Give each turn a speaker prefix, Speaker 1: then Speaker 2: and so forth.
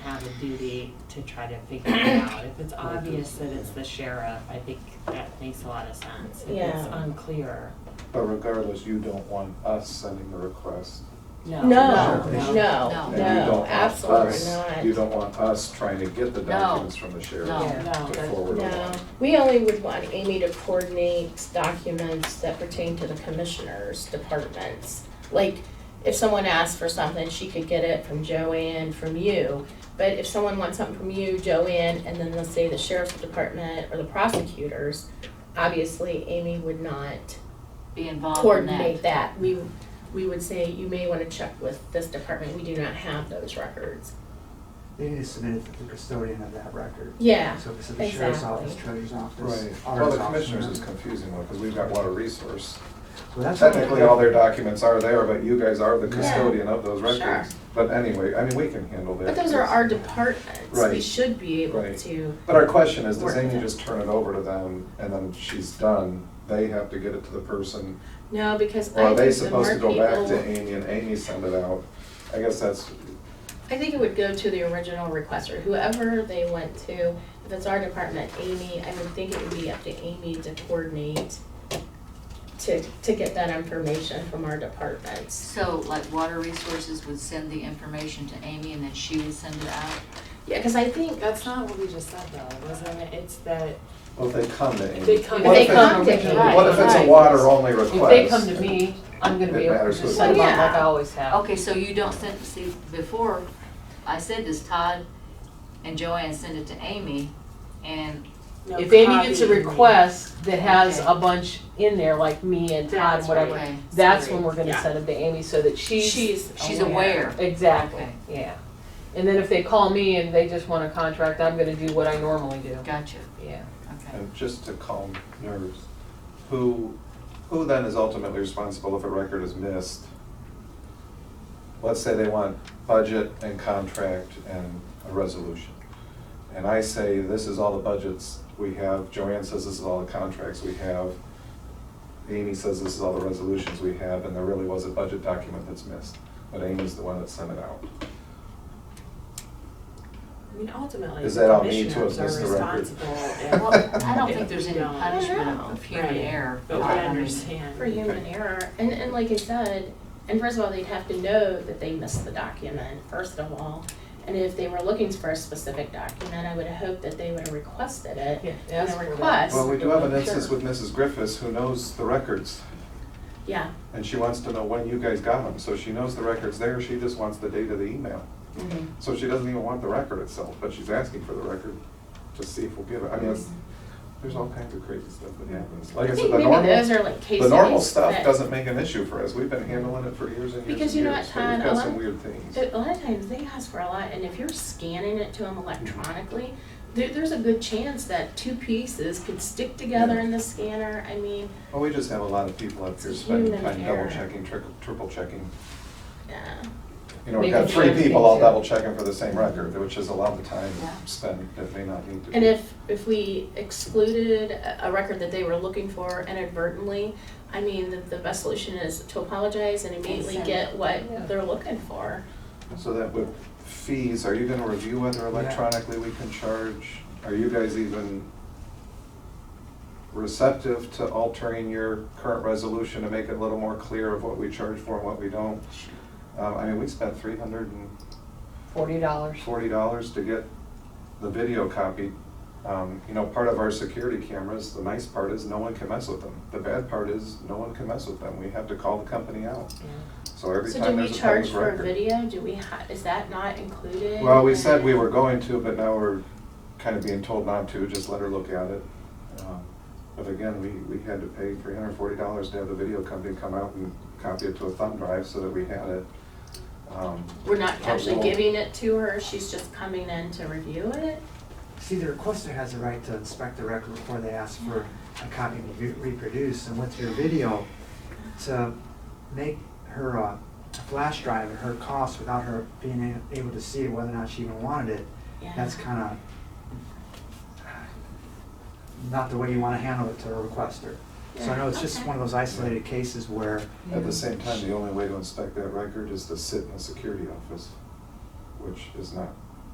Speaker 1: have a duty to try to figure it out. If it's obvious that it's the sheriff, I think that makes a lot of sense. If it's
Speaker 2: Yeah.
Speaker 1: unclear,
Speaker 3: But regardless, you don't want us sending the request.
Speaker 1: no.
Speaker 2: No, no,
Speaker 3: No.
Speaker 2: no,
Speaker 3: And you don't want
Speaker 2: absolutely
Speaker 3: us-
Speaker 2: not.
Speaker 3: You don't want us trying to get the documents from the sheriff
Speaker 4: No,
Speaker 1: no,
Speaker 3: to
Speaker 1: that's-
Speaker 3: forward
Speaker 2: No,
Speaker 3: along.
Speaker 2: we only would want Amy to coordinate documents that pertain to the commissioners' departments. Like, if someone asked for something, she could get it from Joanne, from you. But if someone wants something from you, Joanne, and then let's say the sheriff's department or the prosecutors, obviously Amy would not
Speaker 4: be involved in
Speaker 2: coordinate
Speaker 4: that.
Speaker 2: that. We, we would say, you may wanna check with this department, we do not have those records.
Speaker 5: They need to submit it to the custodian of that record.
Speaker 2: Yeah,
Speaker 5: So if it's at the sheriff's
Speaker 2: Exactly.
Speaker 5: office, treasurer's office,
Speaker 3: Right,
Speaker 5: auditor's office.
Speaker 3: well, the commissioners is confusing one, because we've got water resource.
Speaker 5: So that's-
Speaker 3: Technically, all their documents are there, but you guys are the
Speaker 5: Yeah.
Speaker 3: custodian of those
Speaker 2: Sure.
Speaker 3: records. But anyway, I mean, we can handle that.
Speaker 2: but those are our departments, we
Speaker 3: Right.
Speaker 2: should be able
Speaker 3: Right.
Speaker 2: to,
Speaker 3: But our question is, does
Speaker 2: Work
Speaker 3: Amy
Speaker 2: it.
Speaker 3: just turn it over to them, and then she's done? They have to get it to the person
Speaker 2: no, because
Speaker 3: Or
Speaker 2: I
Speaker 3: are they
Speaker 2: think the more
Speaker 3: supposed to go back to
Speaker 2: people,
Speaker 3: Amy and Amy send it out? I guess that's,
Speaker 2: I think it would go to the original requester, whoever they went to. If it's our department, Amy, I would think it would be up to Amy to coordinate to, to get that information from our departments.
Speaker 4: So like water resources would send the information to Amy and then she would send it out?
Speaker 2: Yeah, cause I think
Speaker 1: That's not what we just said though, wasn't it? It's that
Speaker 3: well, if they come to Amy.
Speaker 1: They come-
Speaker 3: What
Speaker 2: They
Speaker 3: if it's-
Speaker 2: come to Amy,
Speaker 3: What if it's a
Speaker 1: right.
Speaker 3: water-only request?
Speaker 6: If they come to me, I'm gonna be
Speaker 3: It
Speaker 6: able to
Speaker 3: matters who
Speaker 6: just
Speaker 3: it
Speaker 6: send them
Speaker 2: is.
Speaker 6: out like I always have.
Speaker 4: Okay, so you don't send, see, before, I said this, Todd and Joanne send it to Amy and,
Speaker 1: no
Speaker 6: If Amy gets a
Speaker 1: copying.
Speaker 6: request that has
Speaker 4: Okay.
Speaker 6: a bunch in there, like me and Todd,
Speaker 1: That's
Speaker 6: and whatever,
Speaker 4: okay,
Speaker 6: that's
Speaker 1: Sorry.
Speaker 6: when we're gonna
Speaker 2: Yeah.
Speaker 6: send them to Amy so that she's,
Speaker 2: she's,
Speaker 4: she's aware.
Speaker 6: exactly,
Speaker 4: Okay.
Speaker 6: yeah. And then if they call me and they just want a contract, I'm gonna do what I normally do,
Speaker 4: Gotcha,
Speaker 6: yeah.
Speaker 4: okay.
Speaker 3: And just to calm nerves, who, who then is ultimately responsible if a record is missed? Let's say they want budget and contract and a resolution. And I say, this is all the budgets we have, Joanne says this is all the contracts we have, Amy says this is all the resolutions we have, and there really was a budget document that's missed, but Amy's the one that sent it out.
Speaker 1: I mean, ultimately,
Speaker 3: Is
Speaker 1: the
Speaker 3: that on me to
Speaker 1: commissioners
Speaker 3: have missed
Speaker 1: are
Speaker 3: the record?
Speaker 1: responsible
Speaker 4: Well,
Speaker 1: if,
Speaker 4: I don't think there's any
Speaker 1: Yeah.
Speaker 4: punishment of- of human
Speaker 1: Right.
Speaker 4: error.
Speaker 1: but we
Speaker 4: I mean,
Speaker 1: understand.
Speaker 2: For human error, and, and like I said, and first of all, they'd have to know that they missed the document, first of all. And if they were looking for a specific document, I would have hoped that they would have requested it.
Speaker 6: Yeah,
Speaker 2: And
Speaker 6: ask
Speaker 2: a
Speaker 6: for that.
Speaker 2: request.
Speaker 3: Well, we do have an instance
Speaker 2: Sure.
Speaker 3: with Mrs. Griffiths who knows the records,
Speaker 2: Yeah,
Speaker 3: and she wants to know when you guys got them, so she knows the record's there, she just wants the date of the email.
Speaker 2: mhm.
Speaker 3: So she doesn't even want the record itself, but she's asking for the record to see if we'll give it. I mean, it's- there's all kinds of crazy stuff that happens. Like
Speaker 2: Mm-hmm. I
Speaker 3: I
Speaker 2: think
Speaker 3: said, the
Speaker 2: maybe
Speaker 3: normal,
Speaker 2: those are like case
Speaker 3: the normal
Speaker 2: studies
Speaker 3: stuff
Speaker 2: that-
Speaker 3: doesn't make an issue for us. We've been handling it for years and years and years.
Speaker 2: Because you know what,
Speaker 3: but We've
Speaker 2: Todd, a
Speaker 3: got
Speaker 2: lot-
Speaker 3: some weird things.
Speaker 2: But a lot of times they ask for a lot, and if you're scanning it to them electronically, there, there's a good chance that two pieces could stick together
Speaker 3: Yeah.
Speaker 2: in the scanner, I mean,
Speaker 3: Well, we just have a lot of people up here
Speaker 2: It's
Speaker 3: spending
Speaker 2: human
Speaker 3: time
Speaker 2: error.
Speaker 3: double checking, trickle- triple checking.
Speaker 2: yeah.
Speaker 3: You know, we've
Speaker 6: Making
Speaker 3: got three
Speaker 6: sure
Speaker 3: people all
Speaker 6: everything's in.
Speaker 3: double checking for the same record, which is a lot of time
Speaker 4: Yeah.
Speaker 3: spent that may not need to be.
Speaker 2: And if, if we excluded a a record that they were looking for inadvertently, I mean, the, the best solution is to apologize and immediately
Speaker 4: send
Speaker 2: get
Speaker 6: Yeah.
Speaker 2: what they're looking for.
Speaker 3: So that with fees, are you gonna review whether electronically we can charge? Are you guys even receptive to altering your current resolution to make it a little more clear of what we charge for and what we don't? Um, I mean, we spent three hundred and
Speaker 6: Forty dollars.
Speaker 3: forty dollars to get the video copied. Um, you know, part of our security cameras, the nice part is no one can mess with them. The bad part is no one can mess with them. We have to call the company out. So every
Speaker 2: So do
Speaker 3: time
Speaker 2: we
Speaker 3: there's a public
Speaker 2: charge
Speaker 3: record.
Speaker 2: for a video? Do we ha, is that not included?
Speaker 3: Well, we said we were going to, but now we're kind of being told not to, just let her look at it. Um, But again, we, we had to pay three hundred and forty dollars to have the video company come out and copy it to a thumb drive so that we had it. Um,
Speaker 2: We're not
Speaker 3: but
Speaker 2: actually
Speaker 3: we'll-
Speaker 2: giving it to her, she's just coming in to review it?
Speaker 5: See, the requester has the right to inspect the record before they ask for a copy to be reproduced, and with your video, to make her uh, a flash drive at her cost without her being a- able to see whether or not she even wanted it,
Speaker 2: Yeah.
Speaker 5: that's kind of not the way you want to handle it to a requester. So I know it's just
Speaker 2: Okay.
Speaker 5: one of those isolated cases where,
Speaker 3: At the same time, the only way to inspect that record is to sit in the security office, which is not